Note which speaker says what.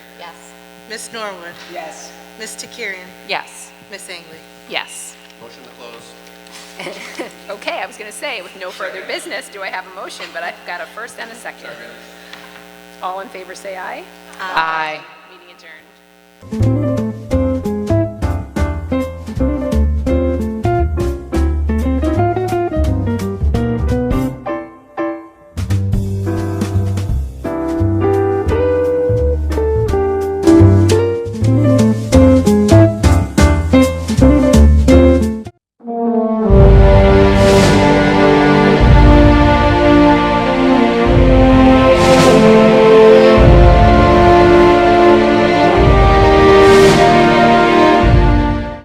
Speaker 1: Yes.
Speaker 2: Miss Norwood,
Speaker 3: Yes.
Speaker 2: Miss Takirian,
Speaker 1: Yes.
Speaker 2: Miss Angley.
Speaker 1: Yes.
Speaker 4: Motion to close.
Speaker 1: Okay, I was going to say, with no further business, do I have a motion, but I've got a first and a second. All in favor, say aye. Aye. Meeting adjourned.